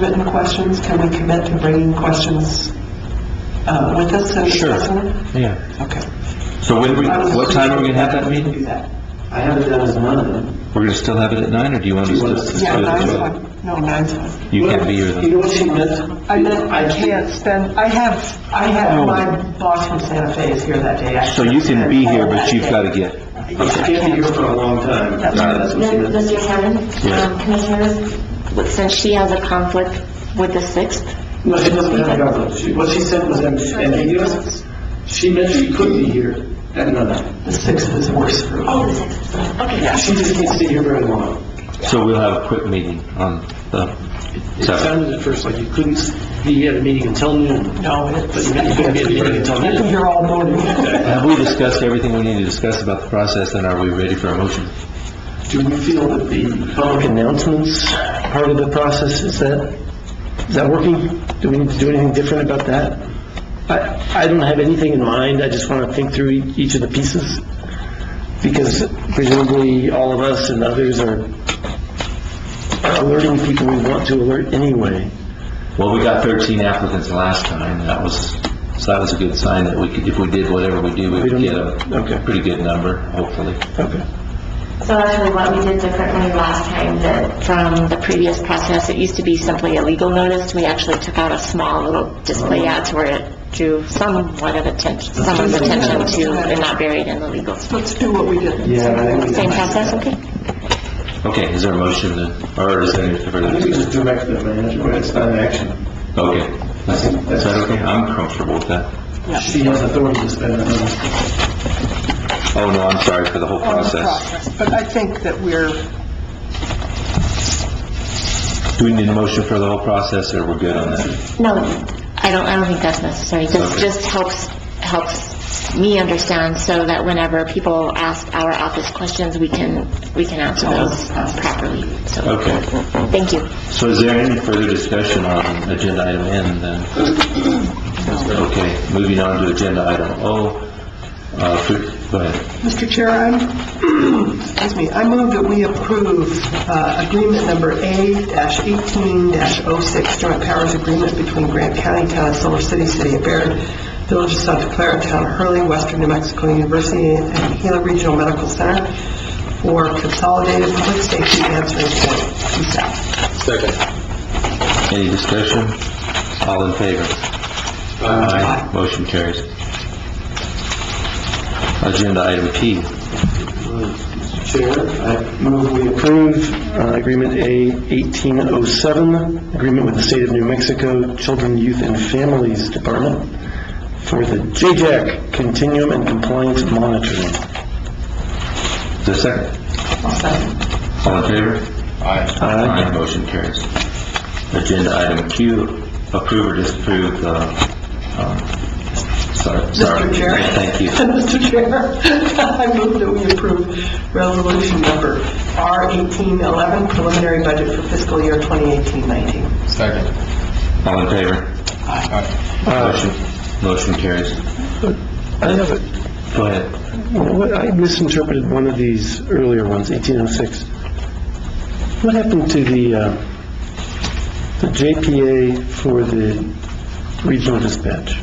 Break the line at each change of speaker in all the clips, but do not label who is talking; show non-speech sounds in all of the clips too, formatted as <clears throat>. written questions? Can we commit to bringing questions uh, with us and
Sure.
discussing them?
Yeah.
Okay.
So when we, what time are we gonna have that meeting?
Do that.
I have it down as none of them.
We're gonna still have it at nine, or do you want us to? let's
Yeah,
do it at
nine's
twelve?
fine. No, nine's fine.
You can't be here then.
You know what she meant?
I meant, I can't spend, I have, I have, my boss from Santa Fe is here that day. I
So you can be here, but you've gotta
can't spend all that day.
get,
She can't be here for a long time.
That's right.
That's what she meant.
Mr. Chairman, um, Commissioners, w- since she has a conflict with the 6th,
No, she doesn't have a government. She- What she said was ambiguous. She meant she could be here at none.
The sixth is worse for me.
oh, the 6th, okay.
She just can't stay here very long.
so we'll have a quick meeting on the
It
seventh.
sounded at first like you couldn't be at a meeting until noon,
No,
but
it's,
you meant you couldn't be at a meeting until noon.
you're all morning.
Have we discussed everything we need to discuss about the process, and are we ready for a motion?
Do we feel that the public announcements part of the process, is that, is that working? Do we need to do anything different about that? I, I don't have anything in mind, I just want to think through e- each of the pieces, because presumably all of us and others are alerting people we want to alert anyway.
Well, we got 13 applicants last time, and that was, so that was a good sign that we could, if we did whatever we do, we
We
would
don't-
get a
okay.
pretty good number, hopefully.
Okay.
So actually, what we did differently last time that from the previous process, it used to be simply a legal notice, we actually took out a small little display ad to where it drew somewhat of attention, someone's Uh-huh. attention to, and not buried in the legal.
<laughs> Let's do what we did.
Yeah, I think we
Same
can-
process, okay?
Okay, is there a motion then, or is there any
I think we
further?
just direct the manager, but it's not an action.
Okay, is that okay? I'm comfortable with that.
She has authority to spend that money.
Oh, no, I'm sorry for the whole
On the
process.
But I think that we're,
Do we need a motion for the whole process, or we're good on that?
No, I don't, I don't think that's necessary. This
Okay.
just helps, helps me understand so that whenever people ask our office questions, we can, we can answer those uh, properly. So,
Okay,
thank you.
so is there any further discussion on agenda item N then? Okay, moving on to agenda item O, uh, fr- go ahead.
Mr. Chair, I'm, <clears throat> excuse me, I move that we approve uh, agreement number A-18-06, joint powers agreement between Grant County, Town of Silver City, City of Baird, Village of Santa Clara, Town of Hurley, Western New Mexico University, and Gila Regional Medical Center for consolidated public safety answering point, CSAP.
Any discussion? All in favor? Aye. Motion carries. Agenda item P.
Chair, I move we approve uh, Agreement A 1807, agreement with the State of New Mexico Children, Youth, and Families Department for the JJAC Continuum and Compliance Monitoring.
Is there a second?
I'll second.
All in favor? Aye. Motion carries. Agenda item Q, approve or disapprove, uh, um, sorry, sorry.
Mr. Chair.
Thank you.
<laughs> Mr. Chair, I move that we approve resolution number R-1811, preliminary budget for fiscal year 2018-19.
All in favor? Aye. Motion, motion carries.
I have a,
Go ahead.
what- I misinterpreted one of these earlier ones, 1806. What happened to the, uh, the JPA for the regional dispatch?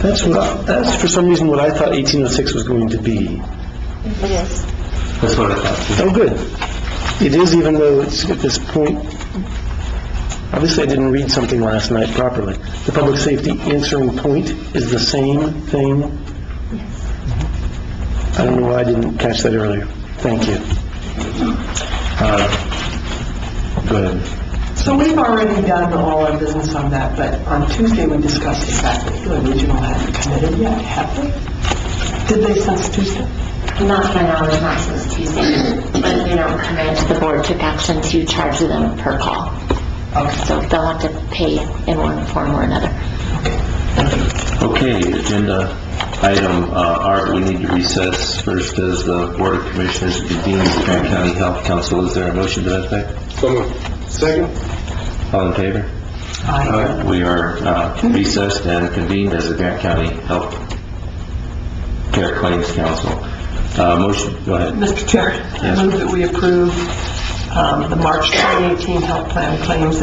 That's what, I- that's for some reason what I thought 1806 was going to be.
That's what I thought.
Oh, good. It is even though it's at this point, obviously I didn't read something last night properly. The public safety answering point is the same thing? I don't know why I didn't catch that earlier. Thank you.
Uh, Go ahead.
So we've already done all our business on that, but on Tuesday, we discussed the fact that Gila Regional hadn't committed yet, have they? Did they since Tuesday?
Uh,
Not to my knowledge, not since Tuesday, but you know, command the board took action to charge them per call.
Okay.
So they'll have to pay in one form or another.
Okay, agenda item uh, R, we need to recess first as the Board of Commissioners convenes the Grant County Health Council. Is there a motion to that effect? All in favor?
Aye.
We are uh, recessed and convened as the Grant County Health Care Claims Council. Uh, Motion, go ahead.
Mr. Chair, I
Yes.
move that we approve uh, um, the March 2018 health plan claims